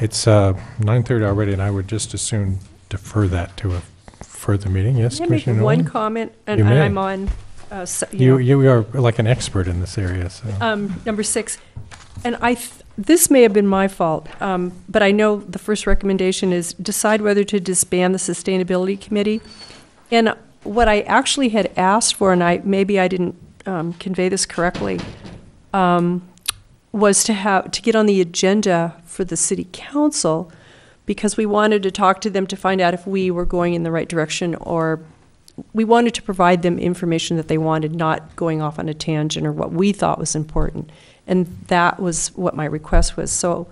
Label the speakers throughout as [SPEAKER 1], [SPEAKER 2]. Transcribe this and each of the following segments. [SPEAKER 1] It's uh, 9:30 already, and I would just as soon defer that to a further meeting. Yes,
[SPEAKER 2] Can I make
[SPEAKER 1] Commissioner
[SPEAKER 2] one
[SPEAKER 1] Nolan?
[SPEAKER 2] comment?
[SPEAKER 1] You
[SPEAKER 2] And
[SPEAKER 1] may.
[SPEAKER 2] I'm on, uh, s-
[SPEAKER 1] You,
[SPEAKER 2] you know,
[SPEAKER 1] you are like an expert in this area, so.
[SPEAKER 2] um, number six. And I, th- this may have been my fault, um, but I know the first recommendation is decide whether to disband the Sustainability Committee. And what I actually had asked for, and I, maybe I didn't um, convey this correctly, um, was to have, to get on the agenda for the city council, because we wanted to talk to them to find out if we were going in the right direction, or we wanted to provide them information that they wanted, not going off on a tangent or what we thought was important. And that was what my request was, so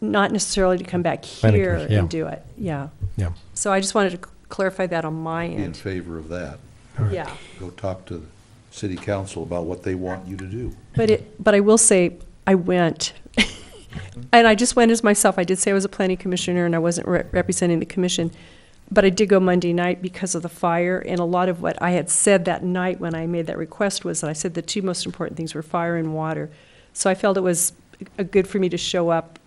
[SPEAKER 2] not necessarily to come back
[SPEAKER 1] Planning
[SPEAKER 2] here
[SPEAKER 1] commission, yeah.
[SPEAKER 2] and do it, yeah.
[SPEAKER 1] Yeah.
[SPEAKER 2] So I just wanted to c- clarify that on my
[SPEAKER 3] Be in
[SPEAKER 2] end,
[SPEAKER 3] favor of that.
[SPEAKER 1] All right.
[SPEAKER 2] yeah.
[SPEAKER 3] Go talk to the city council about what they want you to do.
[SPEAKER 2] But it, but I will say, I went. And I just went as myself. I did say I was a planning commissioner and I wasn't re- representing the commission. But I did go Monday night because of the fire, and a lot of what I had said that night when I made that request was that I said the two most important things were fire and water. So I felt it was uh, good for me to show up,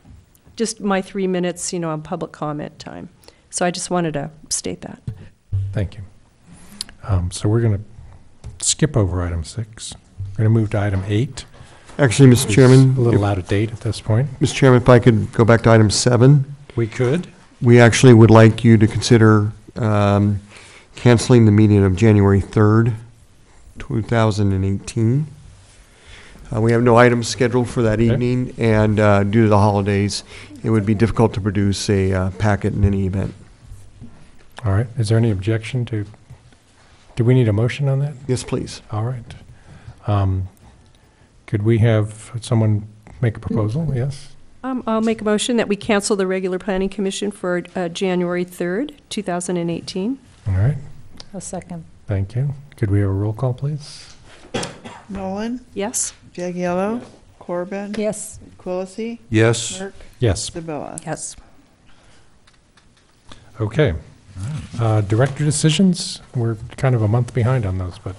[SPEAKER 2] just my three minutes, you know, on public comment time. So I just wanted to state that.
[SPEAKER 1] Thank you. Um, So we're going to skip over item six. We're going to move to item eight.
[SPEAKER 4] Actually, Mr.
[SPEAKER 1] It's
[SPEAKER 4] Chairman,
[SPEAKER 1] A little out of date at this point.
[SPEAKER 4] if- Mr. Chairman, if I could go back to item seven,
[SPEAKER 1] We could.
[SPEAKER 4] we actually would like you to consider um, canceling the meeting of January 3rd, 2018. Uh, We have no items scheduled for that
[SPEAKER 1] Okay.
[SPEAKER 4] evening, and uh, due to the holidays, it would be difficult to produce a uh, packet in any event.
[SPEAKER 1] All right. Is there any objection to, do we need a motion on that?
[SPEAKER 4] Yes, please.
[SPEAKER 1] All right. Um, Could we have someone make a proposal? Yes?
[SPEAKER 2] Um, I'll make a motion that we cancel the regular planning commission for, uh, January third, two thousand and eighteen.
[SPEAKER 1] All right.
[SPEAKER 5] A second.
[SPEAKER 1] Thank you. Could we have a roll call, please?
[SPEAKER 6] Nolan,
[SPEAKER 2] Yes?
[SPEAKER 6] Jagiello, Corbin,
[SPEAKER 5] Yes.
[SPEAKER 6] Quillisi,
[SPEAKER 3] Yes.
[SPEAKER 6] Merk,
[SPEAKER 1] Yes.
[SPEAKER 6] Zabilla.
[SPEAKER 5] Yes.
[SPEAKER 1] Okay. Uh, Director decisions, we're kind of a month behind on those, but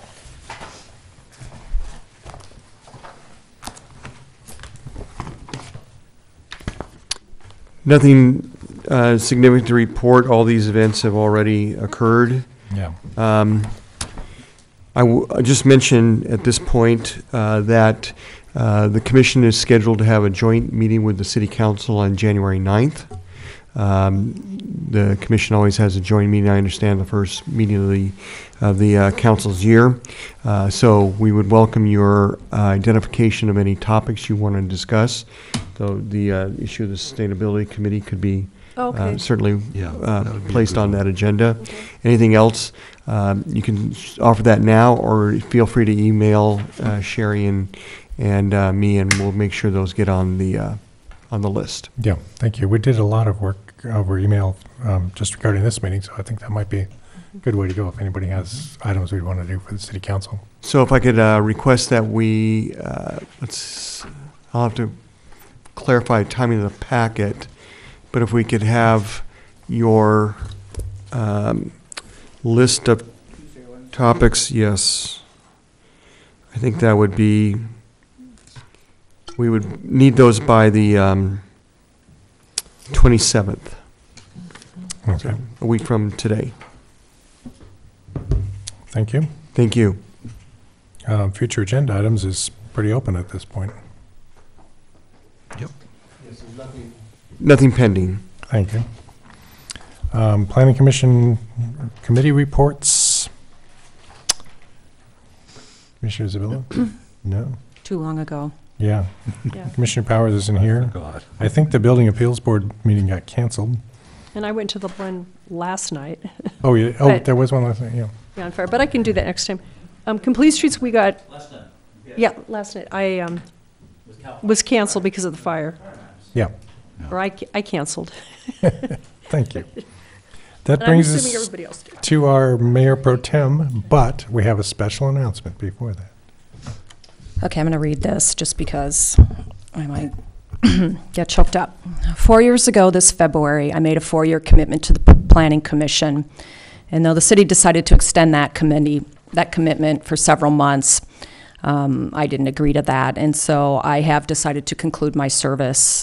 [SPEAKER 4] Nothing uh, significant to report. All these events have already occurred.
[SPEAKER 1] yeah.
[SPEAKER 4] Um, I w- I just mention at this point uh, that uh, the commission is scheduled to have a joint meeting with the city council on January 9th. Um, The commission always has a joint meeting, I understand, the first meeting of the, of the uh, council's year. Uh, So we would welcome your uh, identification of any topics you want to discuss. Though the uh, issue of the sustainability committee could be uh,
[SPEAKER 1] Um,
[SPEAKER 2] Okay.
[SPEAKER 4] certainly
[SPEAKER 3] Yeah,
[SPEAKER 4] uh,
[SPEAKER 3] that would be a
[SPEAKER 4] placed
[SPEAKER 3] good
[SPEAKER 4] on
[SPEAKER 3] one.
[SPEAKER 4] that agenda.
[SPEAKER 2] Okay.
[SPEAKER 4] Anything else, um, you can s- offer that now, or feel free to email uh, Sherry and, and uh, me, and we'll make sure those get on the, uh, on the list.
[SPEAKER 1] Yeah, thank you. We did a lot of work over email um, just regarding this meeting, so I think that might be a good way to go if anybody has items we'd want to do for the city council.
[SPEAKER 4] So if I could uh, request that we, uh, let's, I'll have to clarify timing of the packet, but if we could have your um, list of topics, yes. I think that would be, we would need those by the um, 27th,
[SPEAKER 1] Okay,
[SPEAKER 4] a week from today.
[SPEAKER 1] thank you.
[SPEAKER 4] Thank you.
[SPEAKER 1] Um, Future agenda items is pretty open at this point.
[SPEAKER 4] Nothing pending.
[SPEAKER 1] Thank you. Um, Planning Commission committee reports. Commissioner Zabilla? No?
[SPEAKER 5] Too long ago.
[SPEAKER 1] Yeah.
[SPEAKER 2] Yeah.
[SPEAKER 1] Commissioner Powers isn't here.
[SPEAKER 3] God.
[SPEAKER 1] I think the Building Appeals Board meeting got canceled.
[SPEAKER 2] And I went to the one last night,
[SPEAKER 1] Oh, yeah, oh,
[SPEAKER 2] But-
[SPEAKER 1] there was one last night, yeah.
[SPEAKER 2] yeah, on fire, but I can do that next time. Um, Complete Streets, we got. Last night? Yeah, last night. I, um, was canceled because of the fire,
[SPEAKER 1] Yeah,
[SPEAKER 2] or I, ca- I canceled.
[SPEAKER 1] thank you. That
[SPEAKER 2] And I'm
[SPEAKER 1] brings
[SPEAKER 2] assuming
[SPEAKER 1] us
[SPEAKER 2] everybody else did.
[SPEAKER 1] to our Mayor Pro Tem, but we have a special announcement before that.
[SPEAKER 5] Okay, I'm going to read this just because I might get choked up. Four years ago this February, I made a four-year commitment to the P- Planning Commission. And though the city decided to extend that committee, that commitment for several months, um, I didn't agree to that. And so I have decided to conclude my service